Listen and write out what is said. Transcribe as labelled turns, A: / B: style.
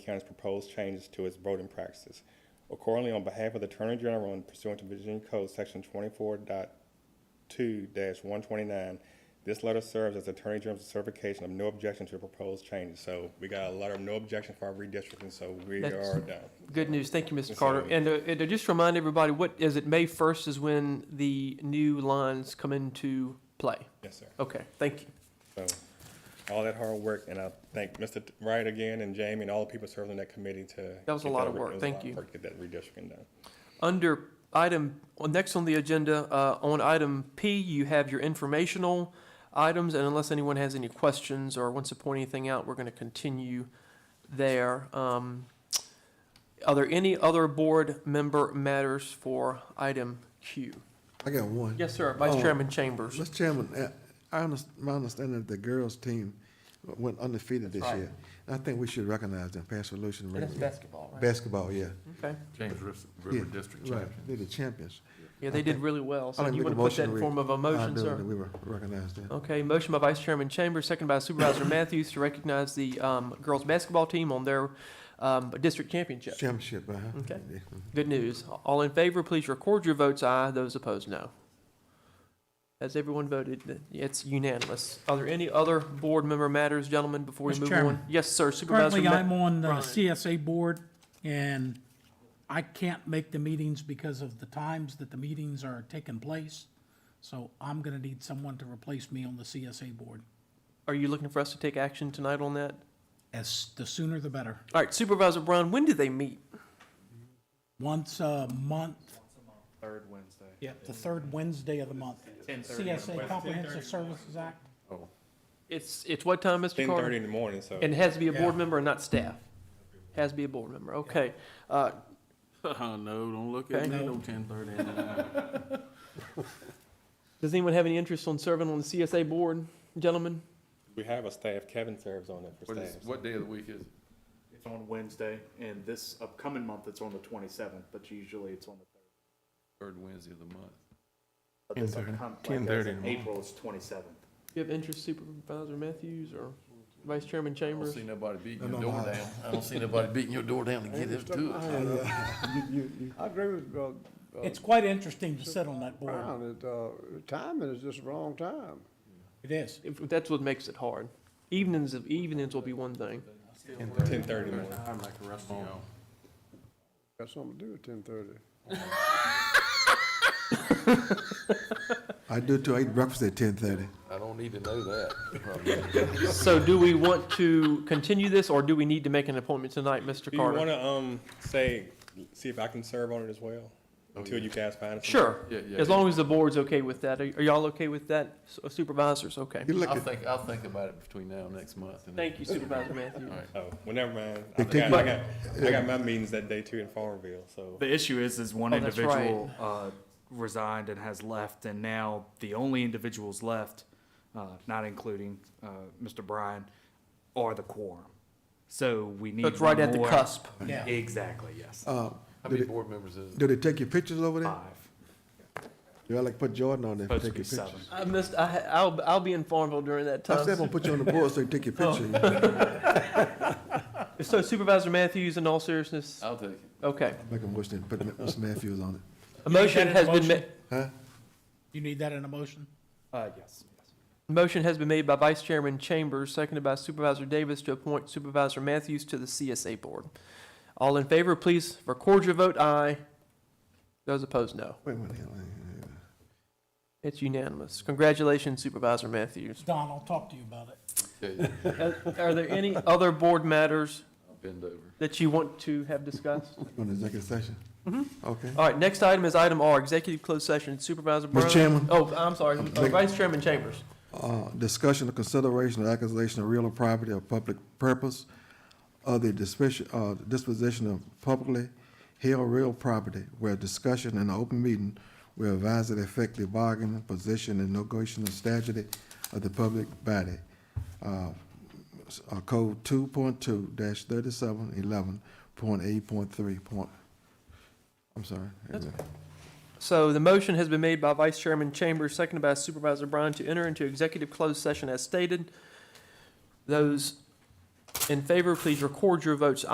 A: County's proposed changes to its voting practices. Accordingly, on behalf of the Attorney General and pursuant to Virginia Code Section 24.2 one twenty-nine, this letter serves as Attorney General's certification of no objection to the proposed changes. So we got a letter of no objection for our redistricting, so we
B: That's-
A: are done.
B: Good news. Thank you, Mr.
A: Yes,
B: Carter.
A: sir.
B: And, uh, and to just remind everybody, what is it? May 1st is when the new lines come into play.
A: Yes, sir.
B: Okay, thank you.
A: So, all that hard work, and I thank Mr. Wright again and Jamie and all the people serving on that committee to.
B: That was a
A: get
B: lot of
A: re-
B: work.
A: it was a
B: Thank
A: lot of
B: you.
A: work to Get that redistricting done.
B: Under item, well, next on the agenda, uh, on item P, you have your informational items, and unless anyone has any questions or wants to point anything out, we're going to continue there. Um, Are there any other board member matters for item Q?
C: I got one.
B: Yes, sir, Vice
C: Oh.
B: Chairman Chambers.
C: Mr. Chairman, uh, I understand, my understanding that the girls' team went undefeated this
B: right.
C: year. I think we should recognize them, pass resolution. right?
B: basketball,
C: Basketball, yeah.
B: Okay.
D: James Ris-
C: Yeah,
D: River District
C: Right,
D: Champion.
C: they're the champions.
B: Yeah, they did really well. So
C: I'll
B: you
C: make a
B: want to put
C: motion uh,
B: that in
C: we-
B: form of a motion,
C: Liability,
B: sir?
C: We were recognized then.
B: Okay, motion by Vice Chairman Chambers, second by Supervisor Matthews to recognize the um, girls' basketball team on their um, district championship.
C: Championship, uh-huh.
B: Okay. Good news. All in favor, please record your votes aye. Those opposed, no. Has everyone voted? Th- It's unanimous. Are there any other board member matters, gentlemen, before we
E: Mr.
B: move
E: Chairman.
B: on? Yes, sir, Supervisor.
E: Currently,
B: Ma-
E: I'm on the
B: Bryant.
E: CSA board, and I can't make the meetings because of the times that the meetings are taking place. So I'm gonna need someone to replace me on the CSA board.
B: Are you looking for us to take action tonight on that?
E: As, the sooner the better.
B: All right, Supervisor Brown, when do they meet?
E: Once a month. Third Wednesday. Yep, the third Wednesday of the month. CSA Comprehensive Services Act.
B: It's, it's what time, Mr.
A: Ten
B: Carter?
A: thirty in the morning, so.
B: And it has to be a board
E: Yeah.
B: member and not staff? Has to be a board member, okay. Uh,
D: Oh, no, don't look
B: Okay.
D: at me, no ten thirty.
B: Does anyone have any interest on serving on the CSA board, gentlemen?
A: We have a staff, Kevin serves on it for
D: What is,
A: staff.
D: what day of the week is it?
F: It's on Wednesday, and this upcoming month, it's on the twenty-seventh, but usually it's on the third.
D: Third Wednesday of the month.
F: But this upcom- like, as
D: 10:30
F: in
D: tomorrow.
F: April is twenty-seventh.
B: Do you have interest Supervisor Matthews or Vice Chairman
D: I don't
B: Chambers?
D: see nobody beating
C: No,
D: your
C: no,
D: door
C: I-
D: down. I don't see nobody beating your door down to get us to it.
G: I agree with uh,
E: It's quite interesting to sit on that board.
G: Brown, that, uh, timing is just the wrong time.
E: It is.
B: If, that's what makes it hard. Evenings, evenings will be one thing.
A: Ten thirty in the morning.
D: I'm like the rest of y'all.
G: Got something to do at ten thirty.
C: I do too, I eat breakfast at ten thirty.
D: I don't need to know that.
B: So do we want to continue this, or do we need to make an appointment tonight, Mr.
A: Do you
B: Carter?
A: wanna, um, say, see if I can serve on it as well? Until you guys find. some-
B: Sure,
D: Yeah, yeah,
B: as
D: yeah.
B: long as the board's okay with that. Are are y'all okay with that, uh, supervisors? Okay.
C: You look
D: I'll
C: at,
D: think, I'll think about it between now and next month. and then-
B: Thank you, Supervisor Matthews.
D: All right.
A: Oh, well, never mind. I
C: They take
A: got,
C: you-
A: I got, I got my meetings that day too in Farmville, so.
F: The issue is, is one
B: Oh, that's right.
F: individual, uh, resigned and has left, and now the only individuals left, uh, not including, uh, Mr. Bryan, are the quorum. So we need
B: That's right at the
F: more-
B: cusp. Oh.
E: Yeah.
F: Exactly, yes.
C: uh,
D: How
C: do
D: many
C: they,
D: board members is it?
C: do they take your pictures over there?
F: Five,
C: Do I like put Jordan on there,
F: supposed
C: take
F: to
C: your
F: be
C: pictures?
B: I
F: seven.
B: missed, I, ha- I'll, I'll be in Farmville during that
C: I said I'm
B: time.
C: gonna put you on the board so you take your
B: Oh.
C: picture.
B: So Supervisor Matthews, in all seriousness,
D: I'll take it.
B: okay.
C: Make a motion, put Mr. Matthews on it.
B: A motion
E: that
B: has been
E: motion?
B: ma-
E: You need that in a motion?
F: Uh, yes, yes.
B: Motion has been made by Vice Chairman Chambers, seconded by Supervisor Davis to appoint Supervisor Matthews to the CSA Board. All in favor, please record your vote, aye. Those opposed, no.
C: Wait a minute. wait a minute.
B: It's unanimous. Congratulations, Supervisor Matthews.
E: Don, I'll talk to you about it.
D: Yeah, yeah,
B: Uh, Are there any other board matters
D: I'll Bend over.
B: that you want to have discussed?
C: On the executive session?
B: Mm-hmm.
C: Okay.
B: All right, next item is item R, Executive Closed Session. Supervisor Brown?
C: Chairman.
B: Oh, I'm sorry, uh, Vice Chairman Chambers.
C: Uh, discussion or consideration of acquisition of real or property of public purpose or the disposition, uh, disposition of publicly held real property where discussion in an open meeting will advisedly affect the bargaining position and negotiating strategy of the public body. Uh, s- uh, Code two point two dash thirty-seven eleven point eight point three point, I'm sorry.
B: So the motion has been made by Vice Chairman Chambers, seconded by Supervisor Brown to enter into executive closed session as stated. Those in favor, please record your votes